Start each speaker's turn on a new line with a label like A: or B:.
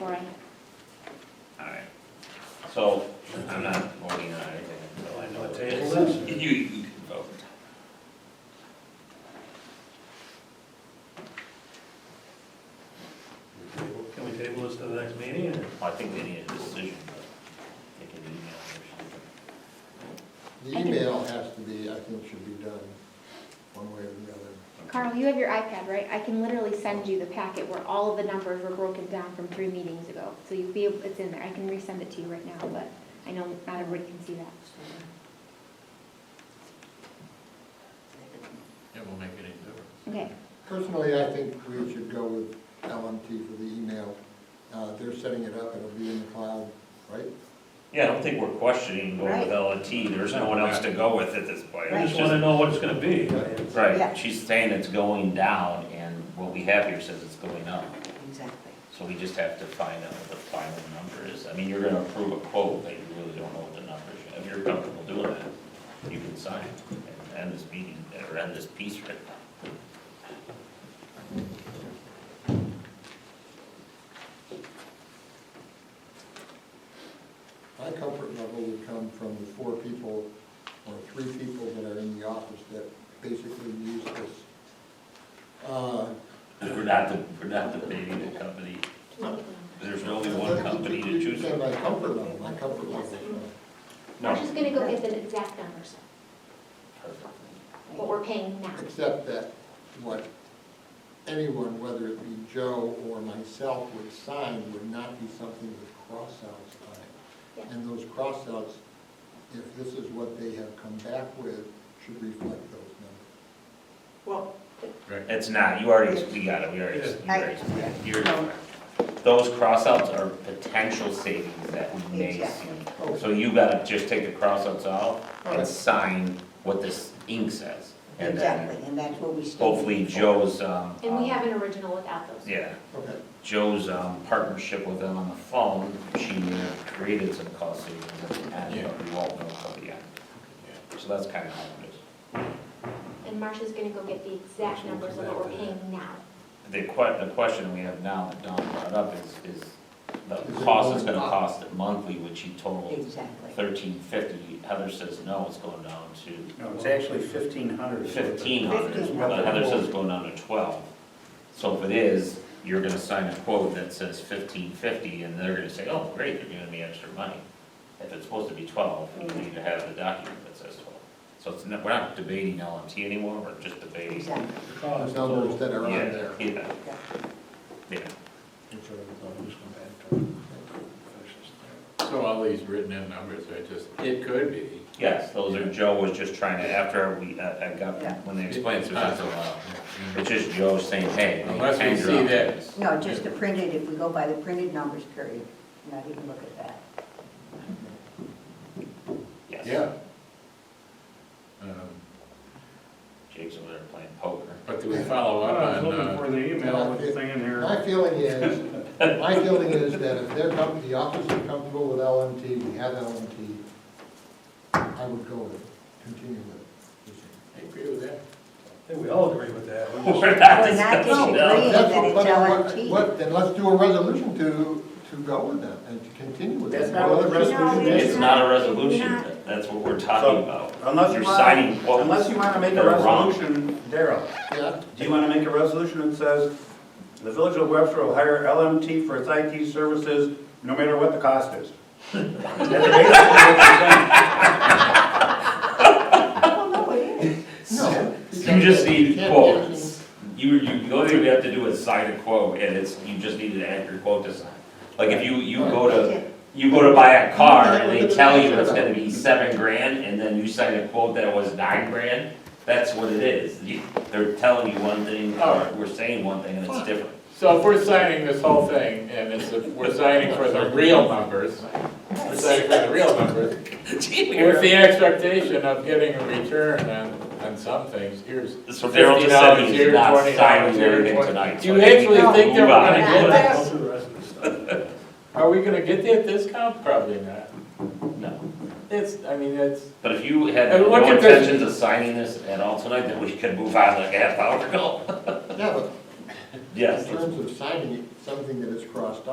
A: Warren.
B: Alright, so I'm not voting on anything until I know.
C: Wanna
B: what it
C: table
B: is.
C: this?
B: You, you can vote.
C: Can we table this to the next meeting, or?
B: I think they need a decision, but they can email or
D: The email has to be, I think should be done one way or the other.
B: something.
A: Carl, you have your iPad, right? I can literally send you the packet where all of the numbers were broken down from three meetings ago. So you'll be, able it's in there. I can resend it to you right now, but I know not everybody can see that.
E: It won't make any difference.
A: Okay,
D: Personally, I think we should go with LMT for the email. Uh, They're setting it up, it'll be in the cloud, right?
B: Yeah, I don't think we're questioning going with L and T, there's no one else to go with at this point.
C: I
B: It's
C: just wanna know what it's gonna be.
B: just-
F: Yeah.
B: Right, she's saying it's going down, and what we have here says it's going up,
F: Exactly.
B: so we just have to find out what the final number is. I mean, you're gonna approve a quote, but you really don't know what the number is, if you're comfortable doing that, you can sign and end this meeting, or end this piece right now.
D: My comfort level would come from the four people or three people that are in the office that basically use this. Uh,
B: We're not, the- we're not debating the company, there's only one company to choose
D: Yeah,
B: from.
D: My comfort level, my comfort level. uh,
A: I'm just gonna go get the exact numbers, what we're paying now.
D: Except that what anyone, whether it be Joe or myself, would sign would not be something with cross-outs on it.
A: Yeah.
D: And those cross-outs, if this is what they have come back with, should reflect those numbers.
F: Well,
B: It's not, you already, we got it, we already, you already, you're, those crossouts are potential savings that we may see.
D: Oh,
B: So you gotta just take the crossouts out and sign what this ink says. And
F: exactly,
B: then
F: and that's what we still.
B: hopefully Joe's, um.
A: And we
B: um,
A: have an original without those.
B: Yeah,
D: Okay,
B: Joe's, um, partnership with them on the phone, she created some cost savings at the end, but we won't know until the end. So that's kinda how it is.
A: And Marcia's gonna go get the exact numbers of what we're paying now.
B: The que, the question we have now that Don brought up is, is the cost it's gonna cost it monthly, which he totaled
F: Exactly.
B: thirteen fifty. Heather says, no, it's going down to
G: No, it's actually fifteen hundred.
B: fifteen hundred,
F: Fifteen.
B: but Heather says it's going down to twelve. So if it is, you're gonna sign a quote that says fifteen fifty, and they're gonna say, oh, great, they're giving me extra money. If it's supposed to be twelve, you need to have the document that says twelve. So it's not, we're not debating LMT anymore, we're just debating.
F: Exactly.
D: those numbers that are on
B: Yeah,
D: there.
B: Yeah, yeah.
E: So all these written in numbers are just, it could be.
B: Yes, those are, Joe was just trying to, after we, uh, I I got,
F: Yeah.
B: when they explained, it was just a,
E: Yeah.
B: it's just Joe saying, hey. they
E: Unless we
B: changed it
E: see
B: up.
E: that.
F: No, just the printed, if we go by the printed numbers, period, not even look at that.
B: Yes.
E: Yeah. Um,
B: Jake's over there playing poker.
E: But do we follow
C: I
E: up
C: was
E: on,
C: looking for
E: uh,
C: the email with the thing in there.
D: My feeling is, my feeling is that if they're, com- the office is comfortable with LMT, we have LMT, I would go with it, continue with it.
E: I agree with that.
C: I think we all agree with that. We're just-
B: We're not
F: We're not
B: discussing that.
F: disagreeing.
D: That's
F: that
D: what,
F: it's
D: but
F: LNT.
D: what- what, then let's do a resolution to, to go with that and to continue with that.
G: That's not what the resolution
A: No,
B: It's
G: is.
B: not a resolution,
A: It's
B: that's what we're talking
G: So,
B: about.
G: Unless
B: You're
G: you
B: signing
G: want,
B: quotes
G: unless you want to make
B: that
G: a
B: are wrong.
G: resolution, Daryl,
D: Yeah,
G: do you want to make a resolution that says, the village of Webster will hire LMT for its IT services, no matter what the cost is? That's basically what
F: Well, no, it is.
D: no.
B: You just need
D: Can't-
B: quotes. You, you, the only thing we have to do is sign a quote, and it's, you just need to add your quote to sign. Like, if you, you go to, You go to buy a car and they tell you it's gonna be seven grand and then you sign a quote that it was nine grand, that's what it is. You- They're telling you one thing, or we're saying one thing and it's different.
E: So if we're signing this whole thing, and it's, we're signing for the real numbers, we're signing for the real numbers, with the expectation of getting a return on, on some things, here's
B: So Daryl
E: fifty
B: just said
E: dollars,
B: he's
E: here's
B: not
E: twenty dollars,
B: signing
E: here's
B: anything
E: twenty.
B: tonight.
E: Do you actually
F: No.
E: think that we're gonna get
F: Move on.
E: it?
C: Go through the rest of the stuff.
E: Are we gonna get that discount? Probably not.
B: No,
E: It's, I mean, it's,
B: but if you had
E: And look
B: no
E: at this.
B: intentions of signing this at all tonight, then we could move on like a half hour ago.
D: Yeah, but
B: Yes,
D: in terms of signing it, something that is crossed off.